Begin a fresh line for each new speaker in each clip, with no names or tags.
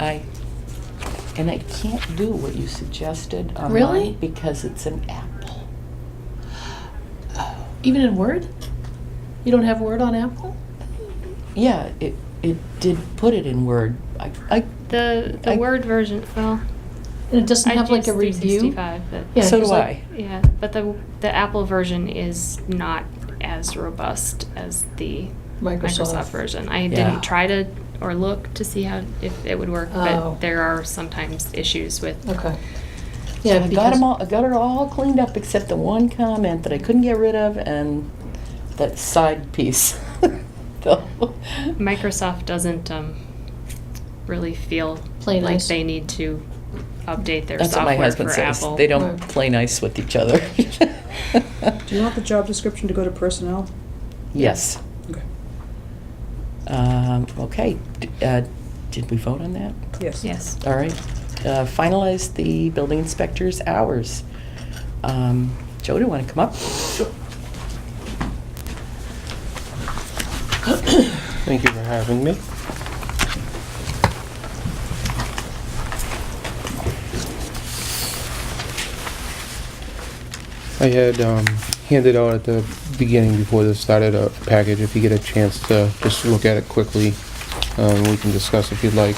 I, and I can't do what you suggested on
Really?
mine because it's an apple.
Even in Word? You don't have Word on Apple?
Yeah, it, it did put it in Word. I, I,
The the
I-
word version. Well,
And it doesn't
I
have like a
use
review?
365, but
Yeah,
so
'cause,
do
like-
I.
yeah, but the the Apple version is not as robust as the Microsoft, version. I
Yeah.
didn't try to or look to see how if it would work,
Oh.
but there are sometimes issues with.
Okay.
yeah,
Yeah,
I got
because,
'em all, I got it all cleaned up except the one comment that I couldn't get rid of and that side piece. So-
Microsoft doesn't um, really feel
Play
like
nice.
they need to update their
That's what
software
my husband
for
says.
Apple.
They don't
Right.
play nice with each other.
Do you want the job description to go to personnel?
Yes.
Okay.
Um, okay. D- uh, did we vote on that?
Yes.
Yes.
All right. Uh, finalize the building inspector's hours. Um, Joe, do you want to come up?
Thank you for having me. I had um, handed out at the beginning before this started a package. If you get a chance to just look at it quickly, um, we can discuss if you'd like.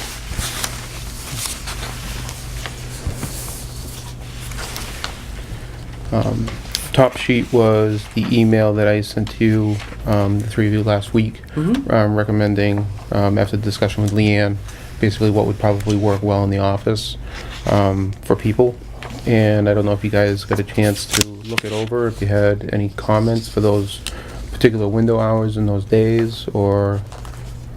Um, top sheet was the email that I sent to you, um, the three of you last week
Mm-hmm.
um, recommending, um, after the discussion with Leanne, basically what would probably work well in the office um, for people. And I don't know if you guys got a chance to look it over, if you had any comments for those particular window hours in those days, or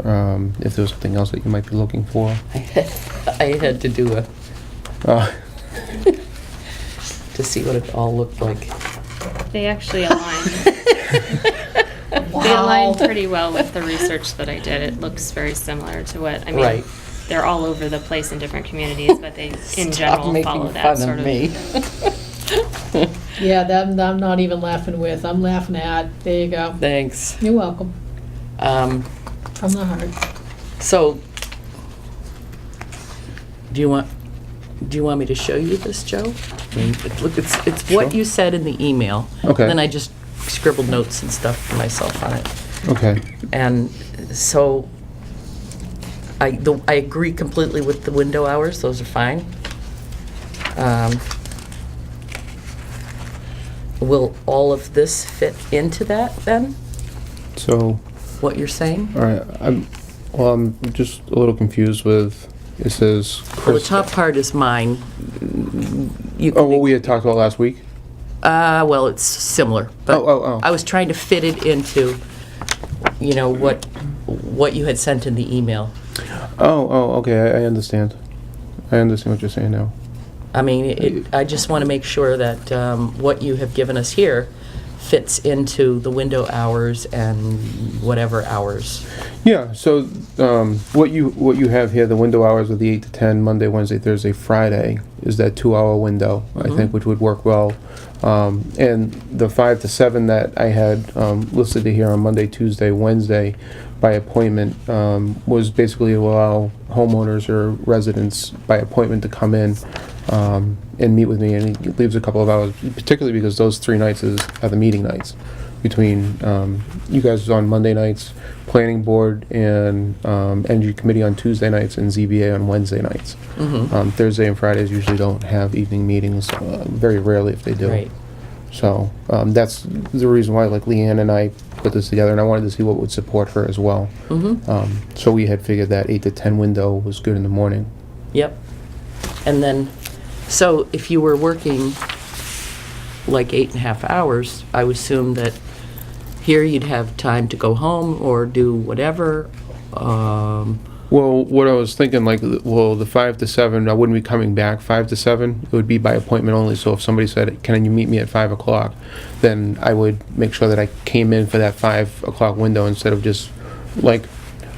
um, if there was something else that you might be looking for.
I, had, I had to do a
Uh,
to see what it all looked like.
They actually align. They align pretty well with the research that I did. It looks very similar to what, I mean,
Right.
they're all over the place in different communities, but they in
Stop
general
making
follow
fun
that sort
of
of.
me.
yeah, that, that I'm not even laughing with, I'm laughing at, there you go.
Thanks.
You're welcome,
Um,
from the heart.
so, do you want do you want me to show you this, Joe? I mean, it- look, it's it's what
Mm-hmm. Sure.
you said in the email.
Okay.
Then I just scribbled notes and stuff for myself on it.
Okay,
And so, I, the- I agree completely with the window hours, those are fine. Um, Will all of this fit into that, then,
so,
what you're saying?
all right, I'm, well, I'm just a little confused with, it says.
Well, the
Chris-
top part is mine. You
Oh, what
can,
we had talked about last week?
uh, well, it's similar, but
Oh, oh, oh.
I was trying to fit it into, you know, what, what you had sent in the email.
Oh, oh, okay, I, I understand. I understand what you're saying now.
I mean, it, I just want to make sure that um, what you have given us here fits into the window hours and whatever hours.
Yeah, so um, what you what you have here, the window hours of the eight to ten, Monday, Wednesday, Thursday, Friday, is that two hour window I think, which would work well. Um, and the five to seven that I had um, listed here on Monday, Tuesday, Wednesday, by appointment, um, was basically to allow homeowners or residents by appointment to come in um, and meet with me, and he leaves a couple of hours, particularly because those three nights is, are the meeting nights between um, you guys on Monday nights, planning board and um, energy committee on Tuesday nights, and ZBA on Wednesday nights.
Mm-hmm.
Um, Thursday and Fridays usually don't have evening meetings, uh, very rarely if they do.
Right.
So um, that's the reason why, like Leanne and I put this together, and I wanted to see what would support her as well.
Mm-hmm.
Um, so we had figured that eight to ten window was good in the morning.
Yep. And then, so if you were working like eight and a half hours, I would assume that here you'd have time to go home or do whatever. Um,
Well, what I was thinking, like, well, the five to seven, I wouldn't be coming back five to seven. It would be by appointment only. So if somebody said, "Can you meet me at five o'clock?" then I would make sure that I came in for that five o'clock window instead of just, like,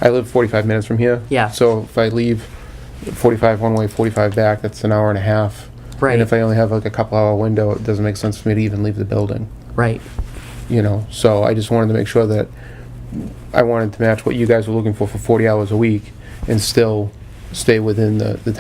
I live forty-five minutes from here.
Yeah.
So if I leave forty-five one way, forty-five back, that's an hour and a half.
Right.
And if I only have like a couple-hour window, it doesn't make sense for me to even leave the building
right.
you know, so I just wanted to make sure that I wanted to match what you guys were looking for for 40 hours a week and still stay within the, the